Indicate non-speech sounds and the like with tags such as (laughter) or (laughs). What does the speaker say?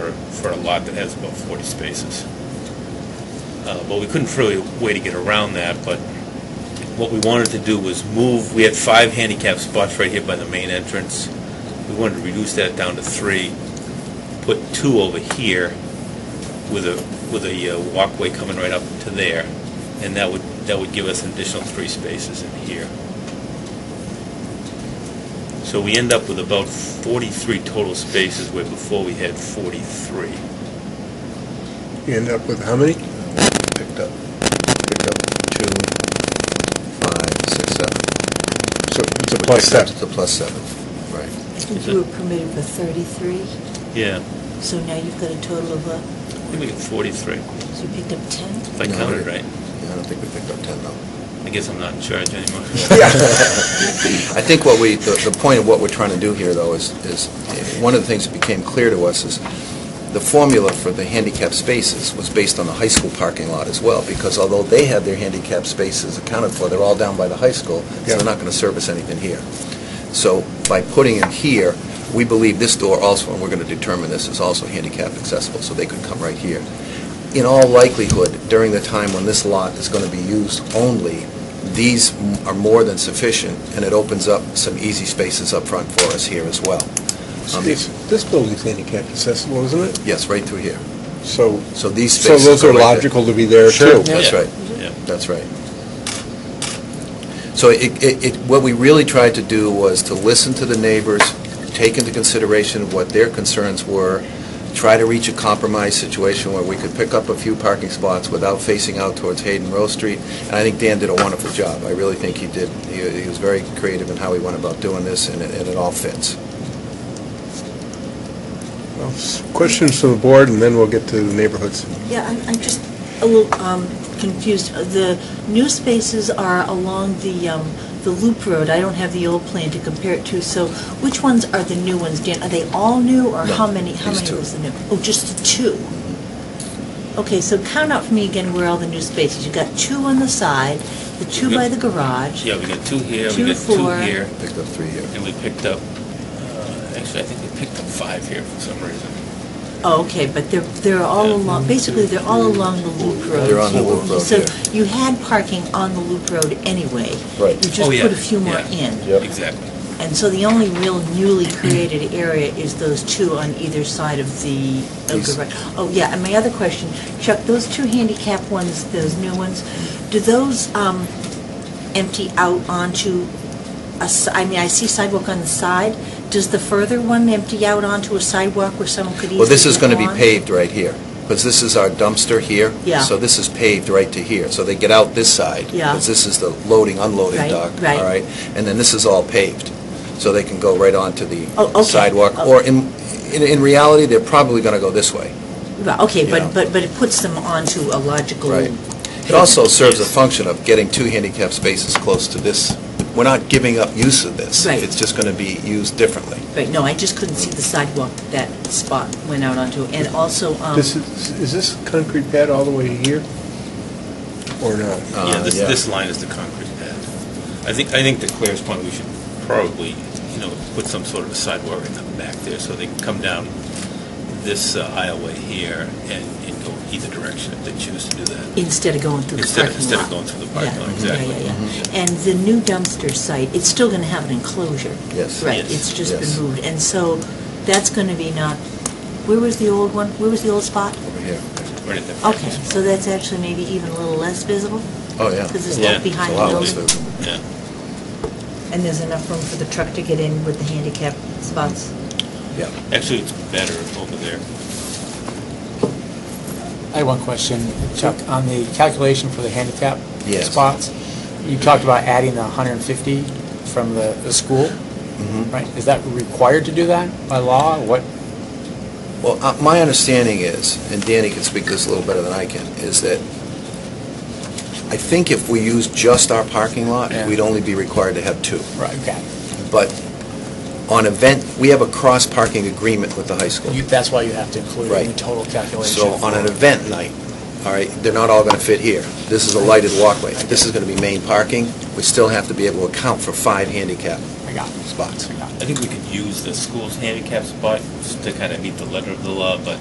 for a lot that has about 40 spaces. Uh, But we couldn't really way to get around that, but what we wanted to do was move, we had five handicap spots right here by the main entrance. We wanted to reduce that down to three, put two over here with a, with a uh, walkway coming right up to there, and that would, that would give us an additional three spaces in here. So we end up with about 43 total spaces where before we had 43. You end up with how many? picked up, picked up two, five, six, seven. So it's a plus seven. It's a plus seven, right. So- You were permitted for 33, Yeah, so now you've got a total of, uh, I think we got 43, so you picked up 10? if I No, counted we- right. Yeah, I don't think we picked up ten though. I guess I'm not in charge (laughs) anymore. I think what we, the, the point of what we're trying to do here though is, is, one of the things that became clear to us is the formula for the handicap spaces was based on the high school parking lot as well, because although they have their handicap spaces accounted for, they're all down by the high school, so Yeah. they're not going to service anything here. So by putting in here, we believe this door also, and we're going to determine this, is also handicap accessible, so they could come right here. In all likelihood, during the time when this lot is going to be used only, these m- are more than sufficient, and it opens up some easy spaces up front for us here as well. Um, It's- This building's handicap accessible, isn't it? Yes, right through here. So, So these so spaces those are right there. logical to be there Sure, too. that's Yeah. right. Yeah. That's right. So it, it, it- what we really tried to do was to listen to the neighbors, take into consideration what their concerns were, try to reach a compromise situation where we could pick up a few parking spots without facing out towards Hayden Row Street. And I think Dan did a wonderful job. I really think he did. He he was very creative in how he went about doing this, and it, and it all fits. Well, s- Questions from the board, and then we'll get to the neighborhoods. Yeah, I'm, I'm just a little um, confused. Uh, The new spaces are along the, um, the loop road. I don't have the old plan to compare it to, so which ones are the new ones, Dan? Are they all new, or No, how many, how these many two. was the new? Oh, just the two? Okay, so count out for me again where all the new spaces. You got two on the side, the two by the garage. Yeah, we got two here, Two, we got two four. here, Picked up three here. and we picked up, uh, actually, I think we picked up five here for some reason. Oh, okay, but they're, they're all Yeah. along, basically, they're all along the loop road. They're on the loop road, So yeah. you had parking on the loop road anyway. Right. You just Oh, yeah, put a few more yeah, in. Yep. Exactly. And so the only real newly created area is those two on either side of the, of These- the right- oh, yeah, and my other question, Chuck, those two handicap ones, those new ones, do those um, empty out onto, a s- I mean, I see sidewalk on the side, does the further one empty out onto a sidewalk where someone could easily Well, this is get going to be on? paved right here, because this is our dumpster here. Yeah. So this is paved right to here. So they get out this side. Yeah. Because this is the loading, unloading Right, dock. right. All right? And then this is all paved, so they can go right onto Oh, the okay. sidewalk. Oh. Or in, in in reality, they're probably going to go this way. Right, Okay, You know. but, but, but it puts them onto a logical. Right. It also serves a function of getting two handicap spaces close to this. We're not giving up use of this. Right. It's just going to be used differently. Right, no, I just couldn't see the sidewalk that spot went out onto, and also, um, This is, is this concrete pad all the way here? Or not? Uh, Yeah, this, this line is the concrete pad. I think, I think to Claire's point, we should probably, you know, put some sort of a sidewalk in the back there so they can come down this uh, aisleway here and, and go either direction if they choose to do that. instead of going through the Instead parking of- lot. instead of going through the parking Yeah, lot, yeah, exactly. yeah, yeah. Mm-hmm. And the new dumpster site, it's still going to have an enclosure. Yes. Right, Yes, it's just yes. been moved, and so that's going to be not, where was the old one, where was the old spot? Over here. Right at the- Okay, so that's actually maybe even a little less visible, Oh, yeah. because It's it's Yeah, not it's behind a the lot building. less visible. Yeah. And there's enough room for the truck to get in with the handicap spots? Yeah. Actually, it's better over there. I have one question, Chuck, on the calculation for the handicap Yes. spots. You talked about adding the 150 from the, the school, Mm-hmm. right? Is that required to do that by law? What, Well, uh, my understanding is, and Danny can speak to this a little better than I can, is that I think if we use just our parking lot, Yeah. we'd only be required to have two. right, okay. But on event, we have a cross-parking agreement with the high school. You- That's why you have to include it in Right. the total calculation. So on an event night, all right, they're not all going to fit here. This is a lighted walkway. This is going to be main parking. We still have to be able to account for five handicap I got it. spots. I got it. I think we could use the school's handicap spot to kind of meet the letter of the law, but